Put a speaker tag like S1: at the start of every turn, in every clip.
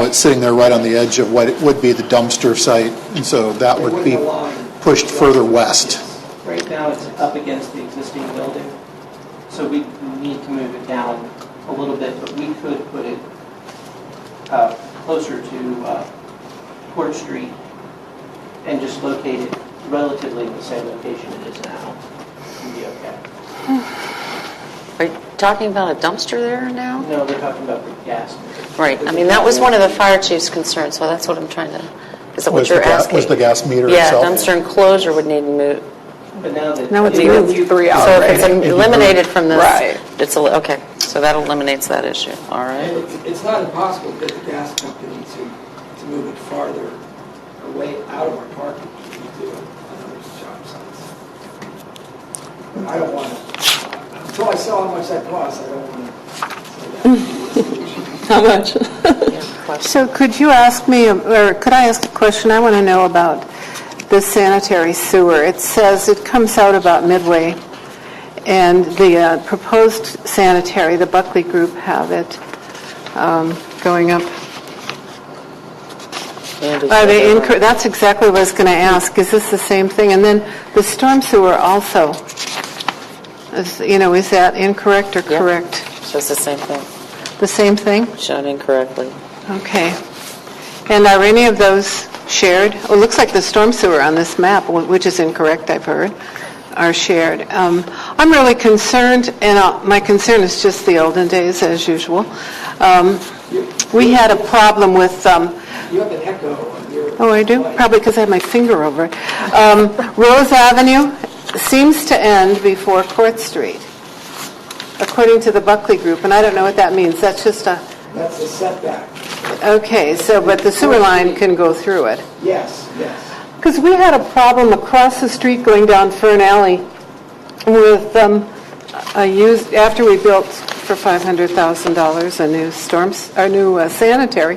S1: Oh, it's sitting there right on the edge of what would be the dumpster site, and so that would be pushed further west.
S2: Right now, it's up against the existing building, so we need to move it down a little bit, but we could put it uh, closer to uh, Court Street and just locate it relatively in the same location it is now. It'd be okay.
S3: Are you talking about a dumpster there now?
S2: No, they're talking about the gas.
S3: Right, I mean, that was one of the fire chief's concerns, so that's what I'm trying to, is that
S1: Was
S3: what
S1: the
S3: you're
S1: ga-
S3: asking?
S1: was the gas meter
S3: Yeah,
S1: itself?
S3: dumpster enclosure would need to move.
S2: But now that.
S4: Now it's
S2: I mean, if
S4: moved
S2: you-
S4: three hours.
S3: So if it's
S1: Right.
S3: eliminated from this.
S4: Right.
S3: It's, a- okay, so that eliminates that issue, all
S5: And
S3: right.
S5: it's, it's not impossible to get the gas company to, to move it farther away out of our parking to do another job sites. But I don't want to, until I sell how much that costs, I don't want to.
S4: How much?
S6: So could you ask me, or could I ask a question? I want to know about the sanitary sewer. It says it comes out about midway, and the uh, proposed sanitary, the Buckley Group have it um, going up. Are they, incre- that's exactly what I was going to ask. Is this the same thing? And then the storm sewer also, is, you know, is that incorrect or
S3: Yeah.
S6: correct?
S3: So it's the same thing,
S6: The same thing?
S3: shown incorrectly.
S6: Okay. And are any of those shared? Oh, It looks like the storm sewer on this map, wh- which is incorrect, I've heard, are shared. Um, I'm really concerned, and uh, my concern is just the olden days, as usual. Um, We had a problem with um,
S5: You have an echo on your.
S6: Oh, I do?
S5: mic.
S6: Probably because I have my finger over it. Um, Rose Avenue seems to end before Court Street, according to the Buckley Group, and I don't know what that means. That's just a,
S5: That's a setback.
S6: okay, so, but the sewer line can go through it.
S5: Yes, yes.
S6: Because we had a problem across the street going down Fern Alley with um, a used, after we built for $500,000 a new storms, our new uh, sanitary,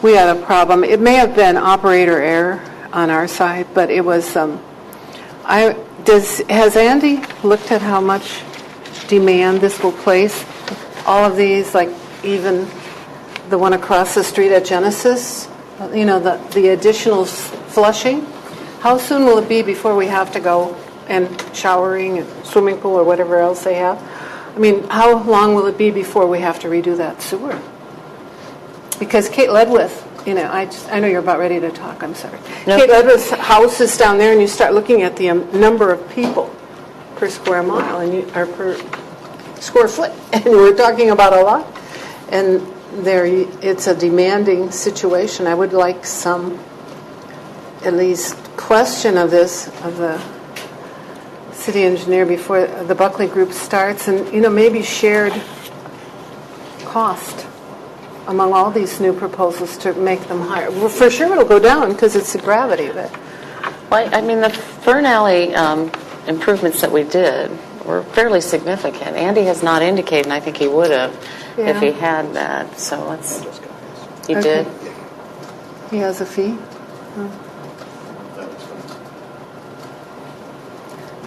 S6: we had a problem. It may have been operator error on our side, but it was, um, I, does, has Andy looked at how much demand this will place? All of these, like even the one across the street at Genesis, you know, the, the additional s- flushing? How soon will it be before we have to go and showering and swimming pool or whatever else they have? I mean, how long will it be before we have to redo that sewer? Because Kate Ledwith, you know, I just, I know you're about ready to talk, I'm sorry. Kate Ledwith's house is down there, and you start looking at the um, number of people per square mile, and you, or per square foot, and we're talking about a lot. And there, you- it's a demanding situation. I would like some, at least, question of this, of the city engineer before the Buckley Group starts, and, you know, maybe shared cost among all these new proposals to make them higher. Well, for sure it'll go down because it's the gravity of it.
S3: Well, I I mean, the Fern Alley um, improvements that we did were fairly significant. Andy has not indicated, and I think he would have if
S6: Yeah.
S3: he had that, so let's, he
S6: Okay.
S3: did?
S6: He has a fee?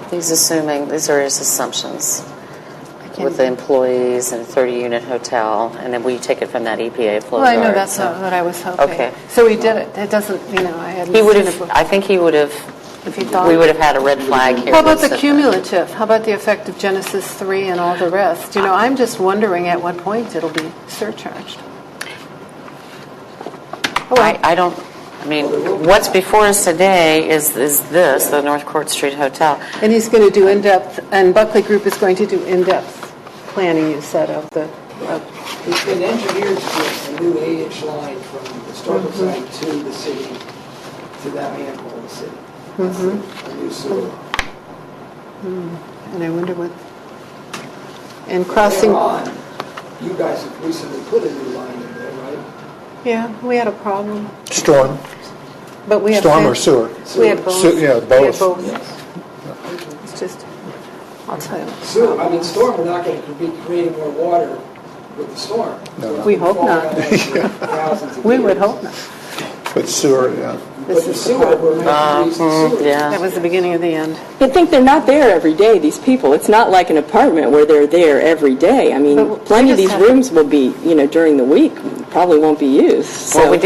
S3: He's assuming, these are his assumptions with the employees and 30-unit hotel, and then we take it from that EPA flow
S6: Well, I know,
S3: chart,
S6: that's
S3: so-
S6: not what I was hoping.
S3: Okay.
S6: So he did it. It doesn't, you know, I hadn't
S3: He would
S6: seen it
S3: have,
S6: before.
S3: I think he would have,
S6: If he thought-
S3: we would have had a red flag here.
S6: How about
S3: that
S6: the
S3: said that.
S6: cumulative? How about the effect of Genesis 3 and all the rest? You know, I'm just wondering at what point it'll be surcharged.
S3: Oh, I, I don't, I mean, what's before us today is, is this, the North Court Street Hotel.
S6: And he's going to do in-depth, and Buckley Group is going to do in-depth planning, you said, of the, of
S5: It's been engineered to get a new eight-inch line from the historical site to the city, to that manhole in the city. That's the- A new sewer line.
S6: And I wonder what, and crossing,
S5: Later on, you guys have recently put a new line in there, right?
S6: yeah, we had a problem,
S1: Storm,
S6: but we have.
S1: storm or sewer?
S6: We had both.
S1: Sewer, yeah,
S6: We
S1: both.
S6: had both. It's just, I'll tell you.
S5: Sewer, I mean, storm, we're not going to be creating more water with the storm.
S1: No.
S6: We hope not.
S5: Thousands of
S6: We would
S5: years.
S6: hope not.
S1: But sewer, yeah.
S5: But
S4: This
S5: the
S4: is the
S5: sewer, we're not using sewer.
S6: That
S3: Yeah,
S6: was the beginning of the end.
S4: You'd think they're not there every day, these people. It's not like an apartment where they're there every day. I mean,
S3: But we
S4: plenty
S3: just
S4: of these
S3: have-
S4: rooms will be, you know, during the week, probably won't be used.
S3: Well,
S4: so-
S3: we